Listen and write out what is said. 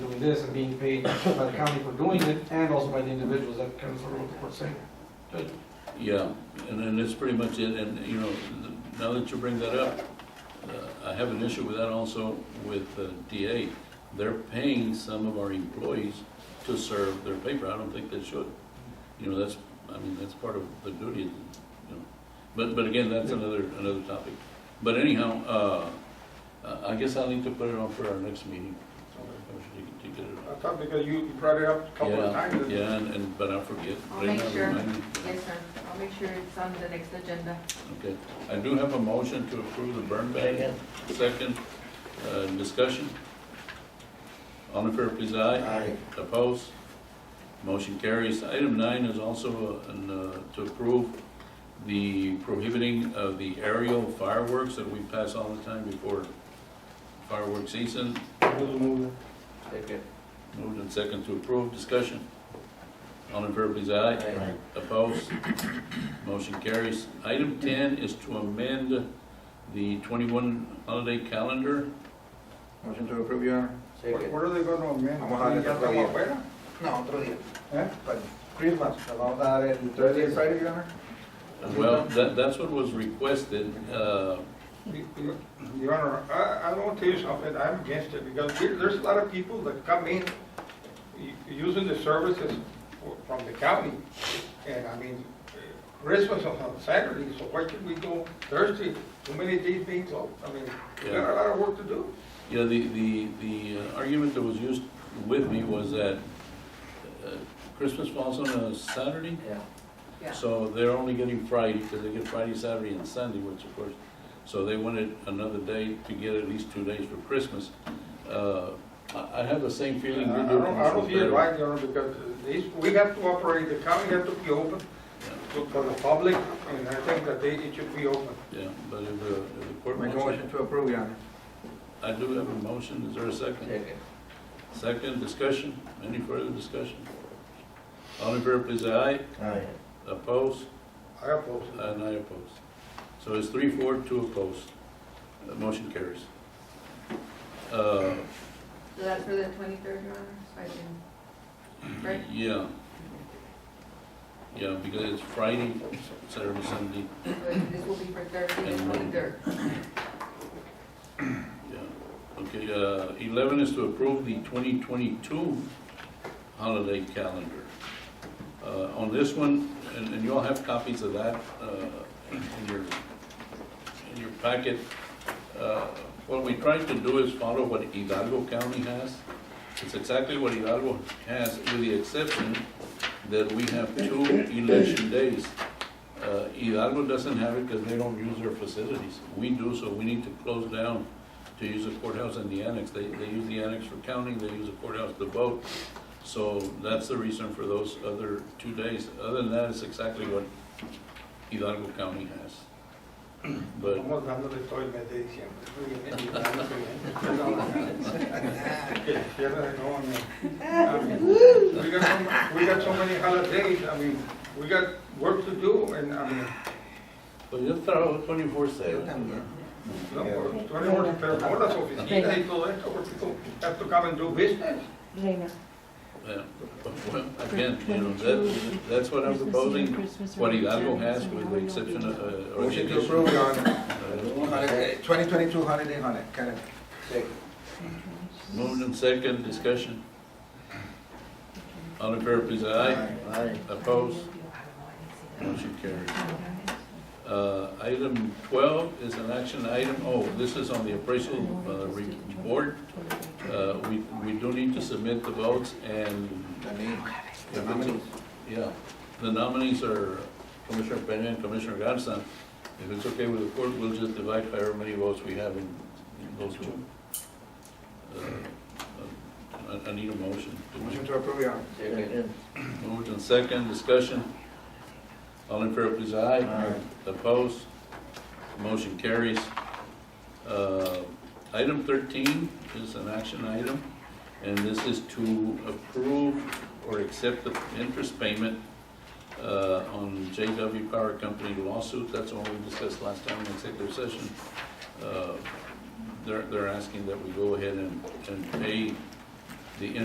this and being paid by the county for doing it, and also by the individuals that come through what the court's saying. Yeah, and then that's pretty much it, and, you know, th- now that you bring that up, uh, I have an issue with that also with uh, DA. They're paying some of our employees to serve their paper, I don't think they should. You know, that's, I mean, that's part of the duty, you know. But, but again, that's another, another topic. But anyhow, uh, uh, I guess I'll need to put it on for our next meeting. To get it I thought because you you brought it up a couple Yeah, of times. and- Yeah, and- and, but I forget. I'll Right make now, sure. remind me. Yes, sir. I'll make sure it's on the next agenda. Okay, I do have a motion to approve the burn ban. Second, uh, discussion. All in favor, please, aye. Aye. Opposed? Motion carries. Item nine is also uh, an, uh, to approve the prohibiting of the aerial fireworks that we pass all the time before fireworks season. Second. Moved and second to approve, discussion. All in favor, please, aye. Aye. Opposed? Motion carries. Item ten is to amend the twenty-one holiday calendar. Motion to approve, Your Honor. What Second. what are they gonna amend? Vamos a darle Ya otro estamos día. afuera. No, otro día. ¿Eh? Para Christmas, le vamos a dar el Thursday and Friday, Your Honor. Well, that, that's what was requested, uh, Your Honor, I, I don't tell you something, I'm against it, because there- there's a lot of people that come in u- using the services for- from the county, and I mean, Christmas is on Saturday, so why should we go Thursday? Too many days being closed, I mean, we got a lot of work to do. Yeah, the, the, the uh, argument that was used with me was that uh, Christmas falls on a Saturday, Yeah. Yeah. so they're only getting Friday, because they get Friday, Saturday, and Sunday, which of course, so they wanted another day to get at least two days for Christmas. Uh, I, I have the same Uh, I I feeling you do. don't, I don't see it Commissioner right, you know, because these, we have to operate, the county has to be open to- for the public, and I think that they, it should be open. Pedro. Yeah, but if the, if the court Make a wants motion it, to approve, Your Honor. I do have a motion, is there a second? Second. Second, discussion, any further discussion? All in favor, please, aye, Aye. opposed? I oppose it. And I oppose. So it's three, four, two opposed. The motion carries. Uh, So that's for the twenty-third, Your Honor, so I can, right? Yeah. Yeah, because it's Friday, Saturday, Sunday, But This will be for Thursday, the twenty-third. yeah. Okay, uh, eleven is to approve the twenty twenty-two holiday calendar. Uh, on this one, and, and you all have copies of that, uh, in your, in your packet. Uh, What we tried to do is follow what Hidalgo County has. It's exactly what Hidalgo has, with the exception that we have two election days. Uh, Hidalgo doesn't have it because they don't use their facilities. We do, so we need to close down to use the courthouse and the annex. They, they use the annex for counting, they use the courthouse to vote. So that's the reason for those other two days. Other than that, it's exactly what Hidalgo County has. But Estamos dándole todo el mes de diciembre. Muy bien, dándole. Que cierre de nuevo, ¿no? I mean, We got, so- we got so many holidays, I mean, we got work to do, and I mean, Pues yo trabajo 24/7. también. no, por- tú eres un- pero por las oficinas y todo esto, porque people have to come and do business. Reina. Yeah. Well, Again, you know, that, that's what I'm proposing, what Hidalgo has with the exception of, uh, or the Motion to addition of, approve, Your Honor. uh, Holiday- 2022 eh, holiday, holiday, calendar. Second. Moved and second, discussion. All in favor, please, aye. Aye. Opposed? Motion carries. Uh, Item 12 is an action item, oh, this is on the appraisal uh, re- board. Uh, We we do need to submit the votes and The name, the Yeah. nominees. Yeah, the nominees are Commissioner Peña and Commissioner Garza. If it's okay with the court, we'll just divide however many votes we have in in those two. Uh, I I need a motion. Motion to approve, Your Honor. Second. Moved and second, discussion. All in favor, please, aye. Aye. Opposed? Motion carries. Uh, Item 13 is an action item, and this is to approve or accept the interest payment uh, on JW Power Company lawsuit. That's what we discussed last time in executive session. Uh, They're, they're asking that we go ahead and, and pay